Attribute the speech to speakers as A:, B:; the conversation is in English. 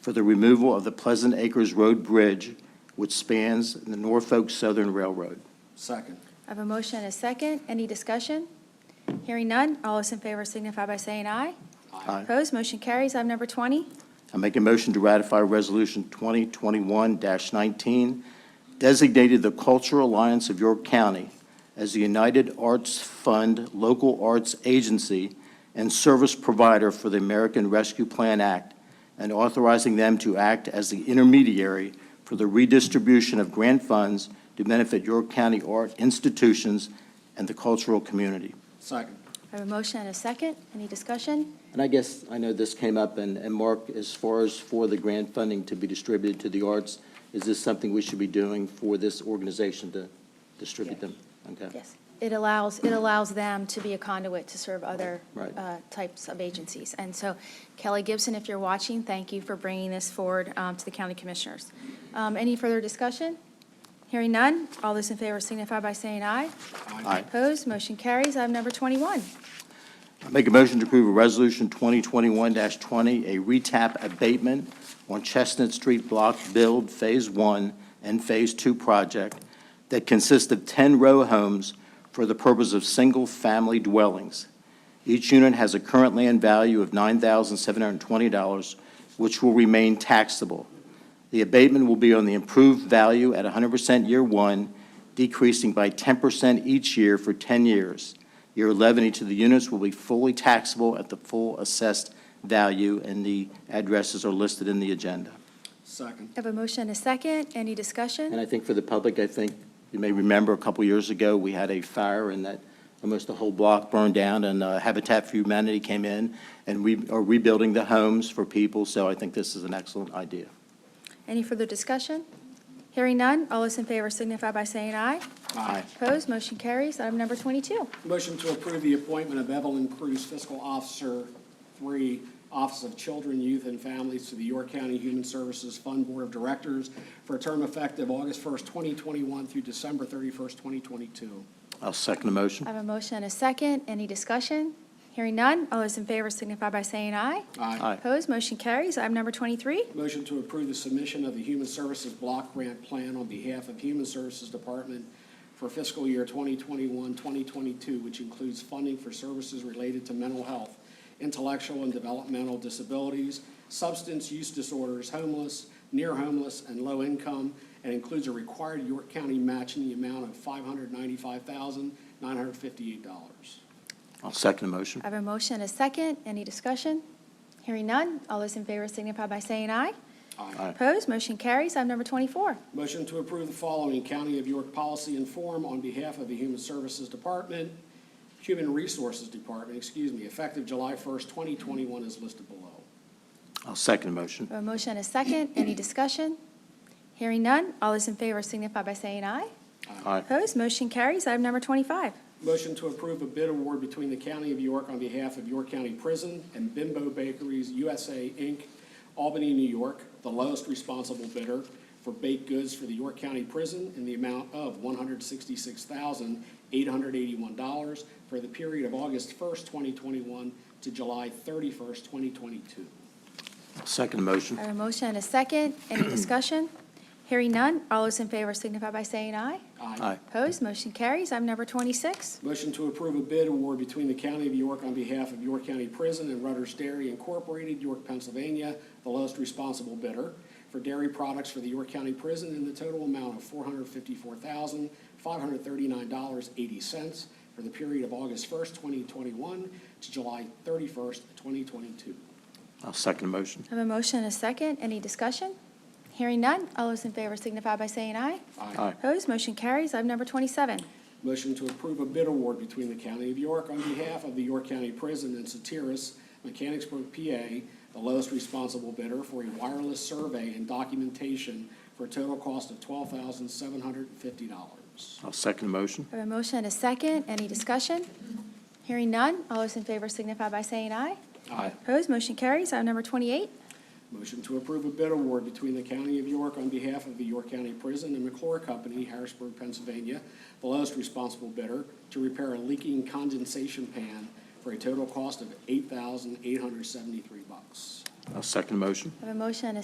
A: for the removal of the Pleasant Acres Road Bridge, which spans the Norfolk Southern Railroad.
B: Second.
C: I have a motion and a second. Any discussion? Hearing none, all those in favor signify by saying aye.
A: Aye.
C: Opposed, motion carries. Item number 20,
A: I make a motion to ratify Resolution 2021-19, designated the Cultural Alliance of York County as the United Arts Fund Local Arts Agency and Service Provider for the American Rescue Plan Act, and authorizing them to act as the intermediary for the redistribution of grant funds to benefit York County art institutions and the cultural community.
B: Second.
C: I have a motion and a second. Any discussion?
A: And I guess, I know this came up, and, and Mark, as far as for the grant funding to be distributed to the arts, is this something we should be doing for this organization to distribute them? Okay.
C: Yes. It allows, it allows them to be a conduit to serve other
A: Right.
C: uh, types of agencies. And so Kelly Gibson, if you're watching, thank you for bringing this forward um, to the county commissioners. Um, Any further discussion? Hearing none, all those in favor signify by saying aye.
A: Aye.
C: Opposed, motion carries. Item number 21,
A: I make a motion to approve a resolution 2021-20, a retap abatement on Chestnut Street Block Build Phase 1 and Phase 2 project that consists of 10 row homes for the purpose of single-family dwellings. Each unit has a current land value of $9,720, which will remain taxable. The abatement will be on the improved value at 100% year one, decreasing by 10% each year for 10 years. Year 11, each of the units will be fully taxable at the full assessed value, and the addresses are listed in the agenda.
B: Second.
C: I have a motion and a second. Any
A: And
C: discussion?
A: I think for the public, I think you may remember a couple years ago, we had a fire and that almost the whole block burned down, and uh, Habitat for Humanity came in, and we are rebuilding the homes for people, so I think this is an excellent idea.
C: Any further discussion? Hearing none, all those in favor signify by saying aye.
A: Aye.
C: Opposed, motion carries. Item number 22,
B: Motion to approve the appointment of Evelyn Cruz, Fiscal Officer, three, Office of Children, Youth, and Families to the York County Human Services Fund Board of Directors for a term effective August 1st, 2021 through December 31st, 2022.
A: I'll second the motion.
C: I have a motion and a second. Any discussion? Hearing none, all those in favor signify by saying aye.
A: Aye.
C: Opposed, motion carries. Item number 23,
B: Motion to approve the submission of the Human Services Block Grant Plan on behalf of Human Services Department for fiscal year 2021, 2022, which includes funding for services related to mental health, intellectual and developmental disabilities, substance use disorders, homeless, near homeless, and low income, and includes a required York County match in the amount of $595,958.
A: I'll second the motion.
C: I have a motion and a second. Any discussion? Hearing none, all those in favor signify by saying aye.
A: Aye.
C: Opposed, motion carries. Item number 24,
B: Motion to approve the following County of York policy and form on behalf of the Human Services Department, Human Resources Department, excuse me, effective July 1st, 2021 is listed below.
A: I'll second the motion.
C: I have a motion and a second. Any discussion? Hearing none, all those in favor signify by saying aye.
A: Aye.
C: Opposed, motion carries. Item number 25,
B: Motion to approve a bid award between the County of York on behalf of York County Prison and Bimbo Bakeries USA, Inc., Albany, New York, the lowest responsible bidder for baked goods for the York County Prison in the amount of $166,881 for the period of August 1st, 2021 to July 31st, 2022.
A: I'll second the motion.
C: I have a motion and a second. Any discussion? Hearing none, all those in favor signify by saying aye.
A: Aye.
C: Opposed, motion carries. Item number 26,
B: Motion to approve a bid award between the County of York on behalf of York County Prison and Rutter's Dairy Incorporated, York, Pennsylvania, the lowest responsible bidder for dairy products for the York County Prison in the total amount of four hundred fifty-four thousand, five hundred thirty-nine dollars, eighty cents for the period of August first, twenty twenty-one to July thirty-first, twenty twenty-two.
A: I'll second the motion.
C: I have a motion and a second. Any discussion? Hearing none, all those in favor signify by saying aye.
A: Aye.
C: Opposed, motion carries. Item number 27,
B: Motion to approve a bid award between the County of York on behalf of the York County Prison and Satiris, Mechanicsburg, PA, the lowest responsible bidder for a wireless survey and documentation for a total cost of twelve thousand seven hundred and fifty dollars.
A: I'll second the motion.
C: I have a motion and a second. Any discussion? Hearing none, all those in favor signify by saying aye.
A: Aye.
C: Opposed, motion carries. Item number 28,
B: Motion to approve a bid award between the County of York on behalf of the York County Prison and McClure Company, Harrisburg, Pennsylvania, the lowest responsible bidder, to repair a leaking condensation pan for a total cost of eight thousand eight hundred seventy-three dollars
A: I'll second the motion.
C: I have a motion and a